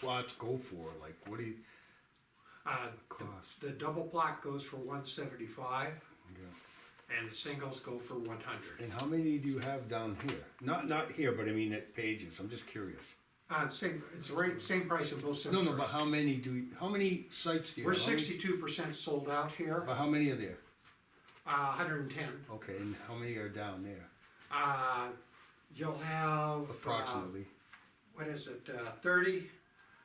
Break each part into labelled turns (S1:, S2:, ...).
S1: plots go for, like what do you
S2: Uh,
S1: cost?
S2: the double block goes for one seventy-five
S1: Okay.
S2: and the singles go for one hundred.
S1: And how many do you have down here? Not, not here, but I mean at Pages, I'm just curious.
S2: Uh, same, it's the rate, same price in both
S1: No, no,
S2: cemeteries.
S1: but how many do, you- how many sites do you
S2: We're
S1: have? How many-
S2: sixty-two percent sold out here,
S1: But how many are there?
S2: uh, hundred and ten.
S1: Okay, and how many are down there
S2: Uh, you'll have. uh,
S1: approximately?
S2: what is it, uh, thirty,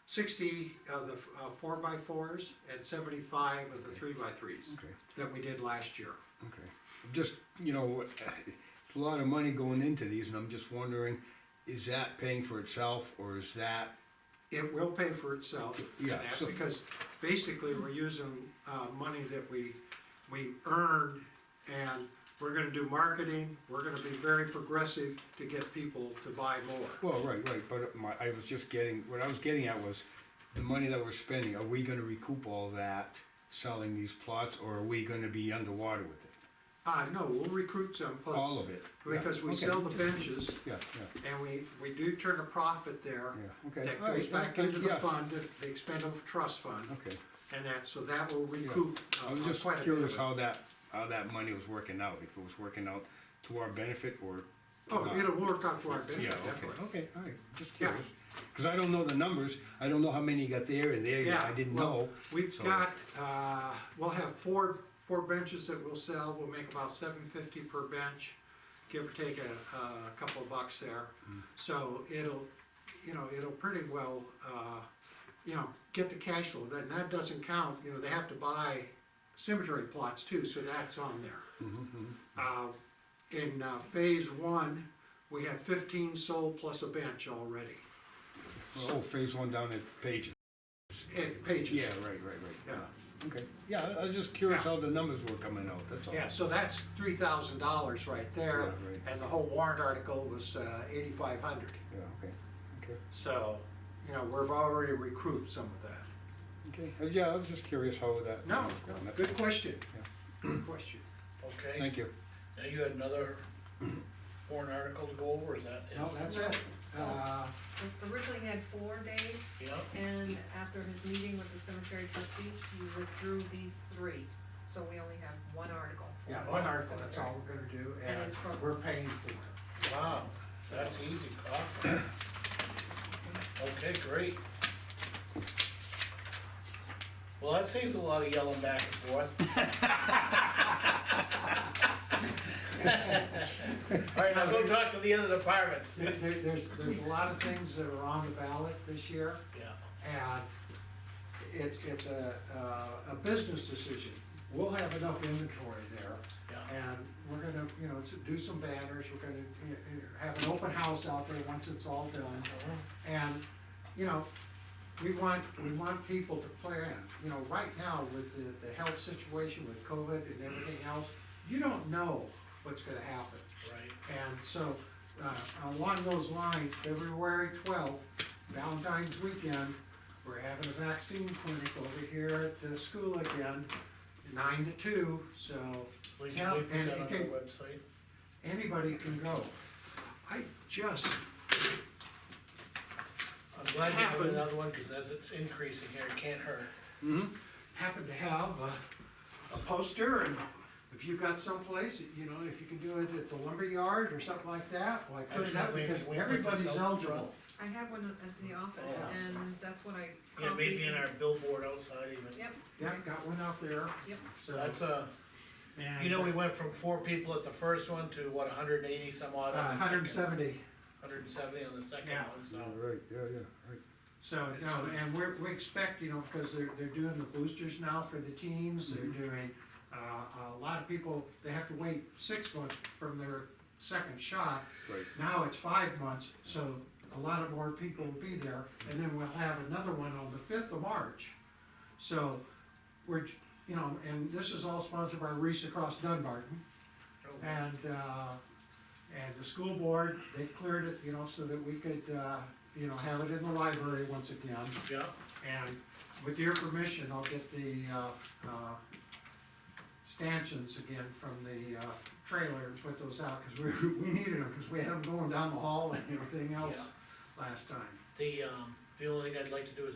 S2: sixty of the, uh, four by fours and seventy-five of the three by threes
S1: Okay.
S2: that we did last year.
S1: Okay, just, you know, it's a lot of money going into these, and I'm just wondering, is that paying for itself, or is that,
S2: It will pay for itself. and
S1: Yeah,
S2: that,
S1: so-
S2: Because basically, we're using, uh, money that we, we earned, and we're gonna do marketing, we're gonna be very progressive to get people to buy more.
S1: well, right, right, but my, I was just getting, what I was getting at was, the money that we're spending, are we gonna recoup all that selling these plots, or are we gonna be underwater with it?
S2: Uh, no, we'll recruit some,
S1: All
S2: plus,
S1: of it? Yeah,
S2: because we
S1: okay.
S2: sell the benches,
S1: Yeah, yeah,
S2: and we, we do turn a profit there.
S1: yeah, okay.
S2: That
S1: all right,
S2: goes back
S1: yeah,
S2: into the
S1: yeah,
S2: fund, the expendable trust fund,
S1: Okay,
S2: and that, so that will recoup uh,
S1: I was just
S2: quite a bit of
S1: curious
S2: it.
S1: how that, how that money was working out, if it was working out to our benefit, or
S2: Oh,
S1: not.
S2: it'll work out to our
S1: Yeah,
S2: benefit,
S1: okay,
S2: definitely.
S1: okay, all right, just
S2: Yeah.
S1: curious. Because I don't know the numbers, I don't know how many you got there and there, yet. I didn't
S2: well,
S1: know.
S2: We've
S1: so-
S2: got, uh, we'll have four, four benches that we'll sell, we'll make about seven fifty per bench, give or take a, a couple of bucks there.
S1: Hmm.
S2: So it'll, you know, it'll pretty well, uh, you know, get the cash flow, That that doesn't count, you know, they have to buy cemetery plots too, so that's on there.
S1: mm-hmm, Hmm.
S2: Uh, in, uh, phase one, we have fifteen sold plus a bench already,
S1: Oh, phase one down at Pages.
S2: and pages.
S1: Yeah, right, right, right.
S2: Yeah.
S1: Okay, yeah, I- I was just curious
S2: Yeah.
S1: how the numbers were coming out, that's all.
S2: Yeah, so that's three thousand dollars right there,
S1: Yeah, right.
S2: and the whole warrant article was uh, eighty-five hundred.
S1: Yeah, okay, okay,
S2: So, you know, we've already recruited some of that.
S1: okay. Uh, Yeah, I was just curious how that.
S2: No,
S1: was going. That's
S2: good
S1: all.
S2: question,
S1: Yeah.
S2: good question.
S3: Okay,
S1: Thank you.
S3: and you had another warrant article to go over, is that? it?
S2: No, that's it. Uh,
S4: Originally he had four, Dave,
S3: Yeah,
S4: and after his meeting with the cemetery trustees, he withdrew these three. So we only have one article. for
S2: Yeah,
S4: the
S2: one article, that's
S4: cemetery.
S2: all we're gonna do,
S4: And
S2: and
S4: it's from-
S2: we're paying for it.
S3: wow, that's easy, awesome. Okay, great. Well, that saves a lot of yelling back and forth. All right, now go talk to the other departments.
S2: There- there- There's, there's a lot of things that are on the ballot this year.
S3: Yeah.
S2: And it's, it's a, uh, a business decision. We'll have enough inventory there.
S3: Yeah.
S2: And we're gonna, you know, to do some banners, we're gonna you know, have an open house out there once it's all done. And, you know, we want, we want people to plan, you know, right now with the, the health situation with COVID and everything else, you don't know what's gonna happen.
S3: Right,
S2: And so, uh, along those lines, February twelfth, Valentine's weekend, we're having a vaccine clinic over here at the school again, nine to two, so
S3: we can
S2: Yeah,
S3: leave
S2: and
S3: that on the
S2: again-
S3: website.
S2: anybody can go. I just,
S3: I'm glad you
S2: Happened.
S3: put another one, cause as it's increasing here, it can't hurt.
S2: happen to have a, a poster and if you've got someplace, you know, if you can do it at the lumberyard or something like that, like put it up
S3: Actually, we-
S2: because
S3: we put this out
S2: everybody's
S3: front.
S2: eligible.
S4: I had one at the office,
S2: Yeah.
S4: and that's what I copied.
S3: Yeah, maybe in
S4: and-
S3: our billboard outside even.
S4: Yep,
S2: Yeah, got one out there,
S4: yep,
S2: so. Uh,
S3: That's a, you know, we went from four people at the first one to what, hundred and eighty some odd?
S2: hundred and seventy.
S3: Hundred and seventy on the second
S2: Yeah.
S3: one, so.
S1: All right, yeah, yeah, right.
S2: So, no, and we're, we expect, you know, because they're, they're doing the boosters now for the teens, they're
S3: Mm-hmm.
S2: doing, uh, a lot of people, they have to wait six months from their second shot.
S1: Right.
S2: Now it's five months, so a lot of more people will be there, and then we'll have another one on the fifth of March. So, we're, you know, and this is all sponsored by Reese Across Dunbarton. And, uh, and the school board, they cleared it, you know, so that we could, uh, you know, have it in the library once again.
S3: Yeah,
S2: And with your permission, I'll get the, uh, uh, stanchions again from the, uh, trailer and put those out, cause we, we needed them, cause we had them going down the hall and everything else last time.
S3: the, um, the only thing I'd like to do is